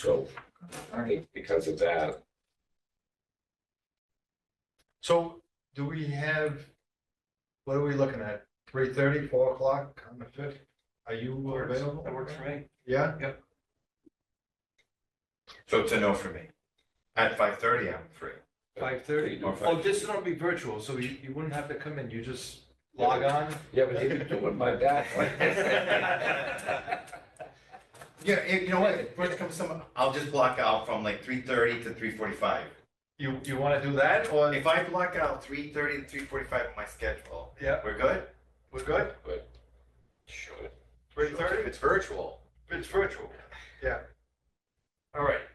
So I think because of that, So do we have, what are we looking at? Three thirty, four o'clock on the fifth? Are you available? That works for me. Yeah, So it's a no for me. At five thirty, I'm free. Five thirty. Or Oh, this is gonna be virtual, so you, you wouldn't have to come in, you just log on? yeah, but they've been doing my back. Yeah, if- you know what, if it comes some, I'll just block out from like three thirty to three forty-five. you, you wanna do that or? If I block out three thirty to three forty-five on my schedule, Yeah, we're good? we're good? Sure. Three thirty? It's virtual. It's virtual. Yeah. All right,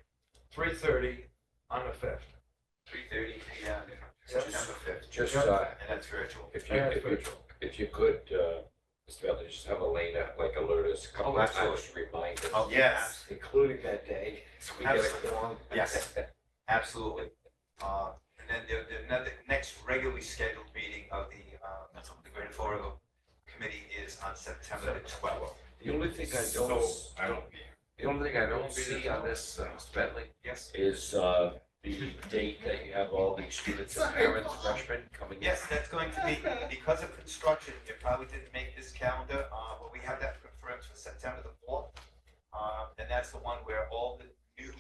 three thirty on the fifth. Three thirty P M, September fifth, Just, uh, and that's virtual. if you, if you, if you could, uh, Mr. Bentley, just have Elena like alert us a couple Oh, of absolutely. times to remind us, Oh. Yes, including that day. so we get it Absolutely. going. Yes. absolutely. Uh, and then the, the, ne- the next regularly scheduled meeting of the, uh, the Greater Florida Committee is on September the twelfth. The only thing I so I don't, don't be here. the only thing I don't see on this, uh, Mr. Bentley, Yes, is, uh, the date that you have all these students and parents, freshmen coming in. yes, that's going to be, because of construction, it probably didn't make this calendar, uh, but we have that confirmed for September the fourth. Uh, and that's the one where all the new,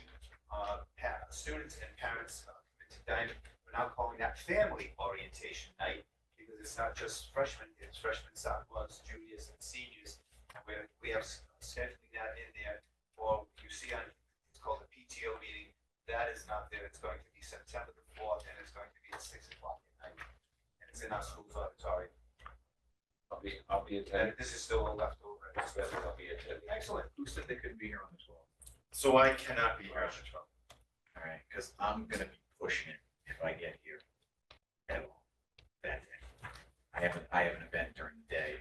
uh, pa- students and parents, uh, come into Diamond, we're now calling that family orientation night. because it's not just freshmen, it's freshmen, sophomores, juniors, and seniors. And we, we have s- scheduling that in there, or you see on, it's called the PTO meeting, that is not there, it's going to be September the fourth, and it's going to be at six o'clock at night. And it's in our school's auditorium, I'll be, I'll be and attending, this is still a leftover. Mr. Bentley, I'll be attending. Excellent. Who said they couldn't be here on the twelfth? So I cannot be here on the twelfth. All right, because I'm gonna be pushing it if I get here at all that day. I have, an- I have an event during the day.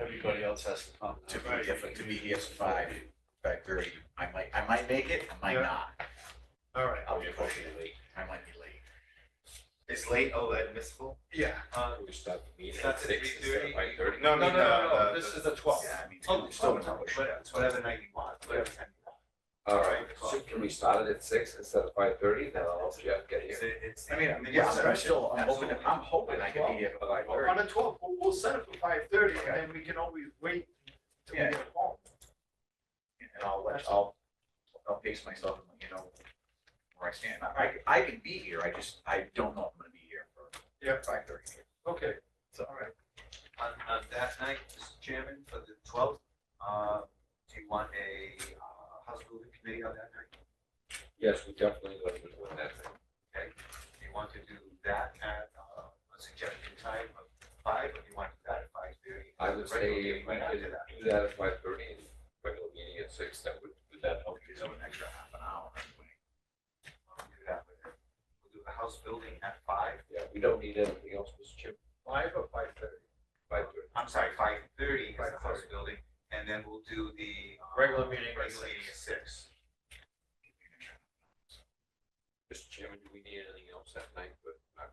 Everybody else has to come. To be different, to be here at five, five thirty. I might, I might make it, I might Yeah. not. All right. I'll be pushing it late. I might be late. Is late oh admissible? Yeah. Uh, We start the meeting at Starts at six instead of 3:30. five thirty. No, No, no, no, no, the- this is Uh, the twelfth. Yeah, I mean, Oh, I'm still gonna push it. whatever, it's whatever night you want, whatever time you want. All right, so can we start it at six instead of five thirty, then I'll help you out get It's, here? it's. I mean, I'm- yeah, I'm still, I'm hoping, I'm hoping I can be here by All On right. the twelfth, we'll, we'll set it for five thirty and then we can always wait till we Yeah. get home. and I'll let, I'll, I'll pace myself and, you know, where I stand. I, I can be here, I just, I don't know if I'm gonna be here Yeah. for five thirty. Okay, So, all right. on, on that night, Mr. Chairman, for the twelfth, uh, do you want a, uh, House Moving Committee on that night? Yes, we definitely want to win that thing. Okay, do you want to do that at, uh, a suggested time of five, or do you want to do that at five thirty? I would say Regular if meeting we right could after that. do that at five thirty and regular meeting at six, that would, would that help you? so an extra half an hour anyway. We'll do that with it. We'll do the House Building at five, Yeah, we don't need anything else, Mr. Chip, Five or five thirty? five thirty. I'm sorry, five thirty is the House 5:30. Building, and then we'll do the. uh, Regular meeting at six. Regular meeting at six. Mr. Chairman, do we need anything else that night, but not?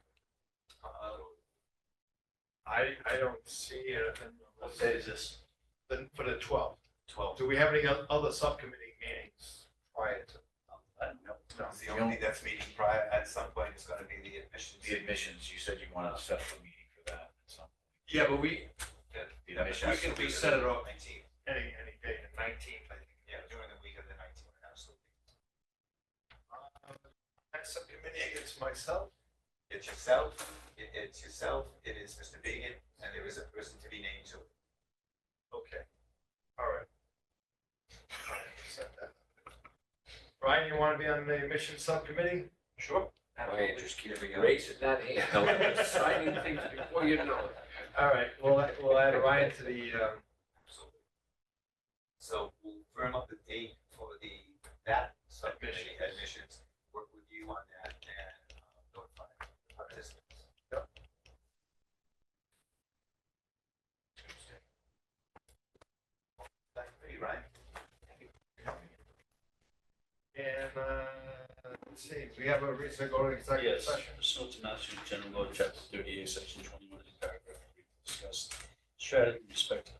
Uh, I, I don't see anything. What day is this? Then for the twelfth. twelve, Do we have any o- other subcommittee meetings prior to? Uh, that's the only, that's meeting prior, at some point, is gonna be the admissions. The admissions, you said you wanted to set up a meeting for that, so. Yeah, but we, The admissions. We can we set set it it up nineteen, any, any day, the nineteenth, I think. yeah, during the week of the nineteenth, absolutely. Uh, Next subcommittee is myself. It's yourself, it, it's yourself, it is Mr. Began, and there is a person to be named too. Okay. All right. All right, set that. Brian, you want to be on the admission subcommittee? Sure. My interest keeps raising that hand, I'm signing things before you know it. All right, we'll, add- we'll add Ryan to the, um, Absolutely. So we'll firm up the date for the, that subcommittee admissions, work with you on that and uh, notify the participants. Tuesday. That's pretty right. and, uh, let's see, we have a reason to go to executive Yes, session. pursuant to Mass General Law, Chapter 38, Section 21, of the paragraph we discussed, strategy with respect to